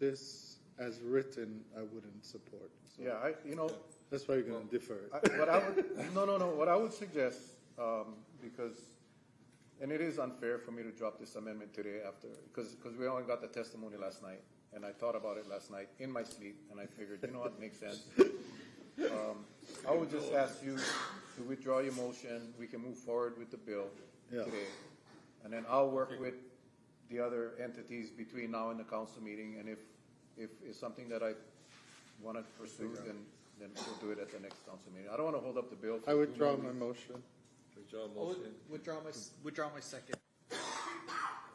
this as written, I wouldn't support. So Yeah, I, you know, That's why you're going to defer it. I, what I would, no, no, no, what I would suggest, um, because, and it is unfair for me to drop this amendment today after, because, because we only got the testimony last night, and I thought about it last night in my sleep, and I figured, you know what, makes sense. Um, I would just ask you to withdraw your motion, we can move forward with the bill Yeah. today. And then I'll work with the other entities between now and the council meeting, and if, if it's something that I want to pursue, then, then we'll do it at the next council meeting. I don't want to hold up the bill. for I too withdraw long. my motion. Withdraw I'll motion. Withdraw my, s- withdraw my second.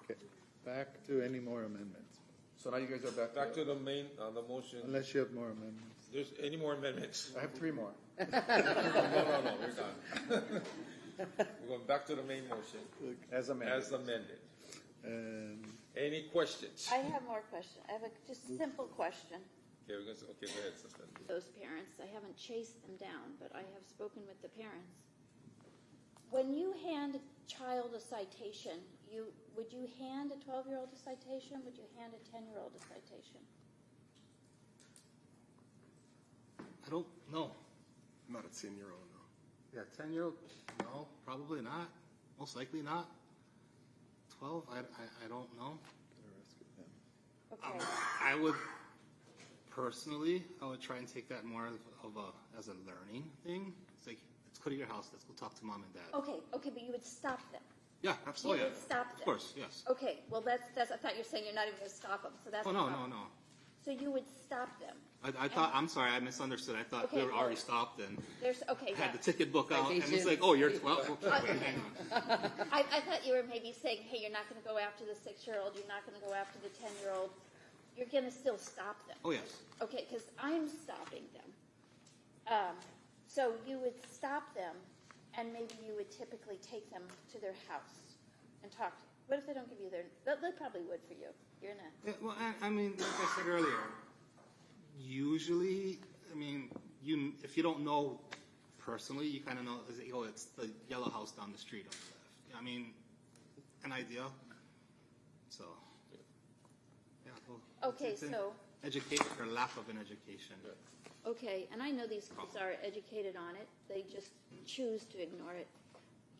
Okay. Back to any more amendments, So now you guys are back Back to, to the main, on the motion. unless you have more amendments. There's any more amendments? I have three more. No, no, no, we're done. We're going back to the main motion As amended. as amended. And Any questions? I have more question. I have a just simple question. Okay, we're going to, okay, go ahead, Susman. those parents. I haven't chased them down, but I have spoken with the parents. When you hand a child a citation, you would you hand a 12-year-old a citation? Would you hand a 10-year-old a citation? I don't know. Not a ten-year-old, no. Yeah, ten year old, no, probably not. Most likely not. Twelve, I, I, I don't know. Okay. I would personally, I would try and take that more of, of a as a learning thing. It's like let's go to your house. Let's go talk to mom and dad. Okay, okay, but you would stop them. Oh, Yeah, absolutely. You would stop Of them. course, yes. Okay, well that's that's. I thought you were saying you're not even going to stop them. So that's Oh a no, no, problem. no. So you would stop them. I, I thought. I'm sorry. I misunderstood. I thought we Okay, Uh, were already well- stopped and There's okay. had yeah. the ticket book out, and it's Citation. like, oh, you're twelve. Wait, hang on. I, I thought you were maybe saying, hey, you're not going to go after the six-year-old, you're not going to go after the ten-year-old. You're going to still stop them. Oh yes. Okay, because I'm stopping them. Um, so you would stop them, and maybe you would typically take them to their house and talk. to What if they don't give you their? They, they probably would for you. You're in a Yeah, Uh, well, I, I mean, like I said earlier, usually, I mean, you if you don't know personally, you kind of know. Is it, oh, it's the yellow house down the street. On the left. I mean, an idea. So, yeah. Well, it's- Okay, it's an so- education or lack of an education. okay. And I know these kids are educated on it. They just choose to ignore it.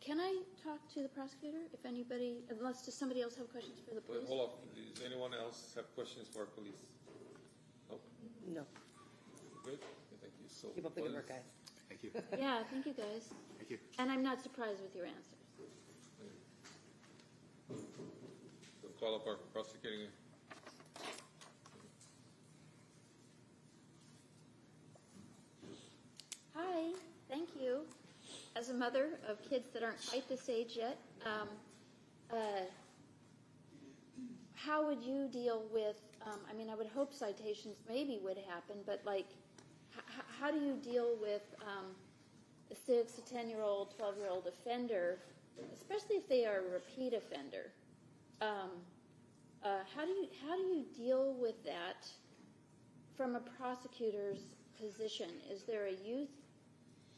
Can I talk to the prosecutor if anybody, unless does somebody else have questions for the Wait, police? hold up. Does anyone else have questions for our police? No? No, Good? Okay, Thank you. So. keep up the good work, police- guys. Thank you. Yeah, thank you guys. Thank you. And I'm not surprised with your answers. We'll Call up our prosecuting. Hi, thank you. As a mother of kids that aren't quite this age yet, um, uh, how would you deal with? Um, I mean, I would hope citations maybe would happen, but like, h- h- how do you deal with um, a six, to ten year old, twelve year old offender, especially if they are a repeat offender? Um, uh, how do you how do you deal with that? from a prosecutor's position, is there a youth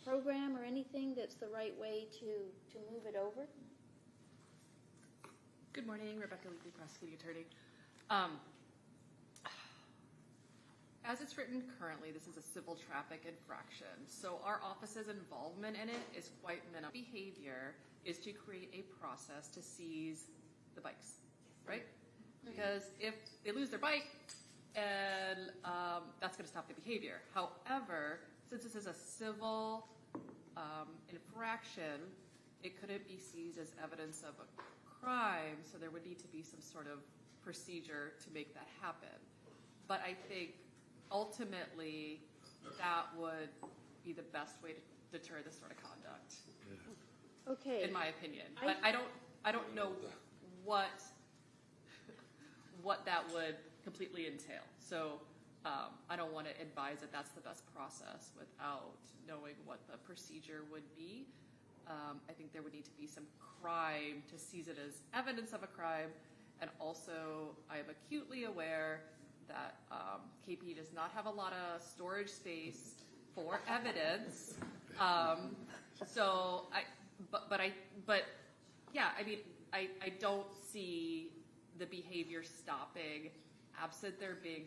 program or anything that's the right way to, to move it over? Good morning, Rebecca Leakley, prosecuting attorney. Um, as it's written currently, this is a civil traffic infraction, so our office's involvement in it is quite minimal. Behavior is to create a process to seize the bikes, right? Because if they lose their bike, and um, that's going to stop the behavior. However, since this is a civil um, infraction, it couldn't be seized as evidence of a crime, so there would need to be some sort of procedure to make that happen. But I think ultimately that would be the best way to deter this sort of conduct, Okay. in my opinion. But I don't, I don't know what, what that would completely entail. So um, I don't want to advise that that's the best process without knowing what the procedure would be. Um, I think there would need to be some crime to seize it as evidence of a crime. And also, I am acutely aware that um, KP does not have a lot of storage space for evidence. Um, so I, but, but I, but yeah, I mean, I, I don't see the behavior stopping absent there being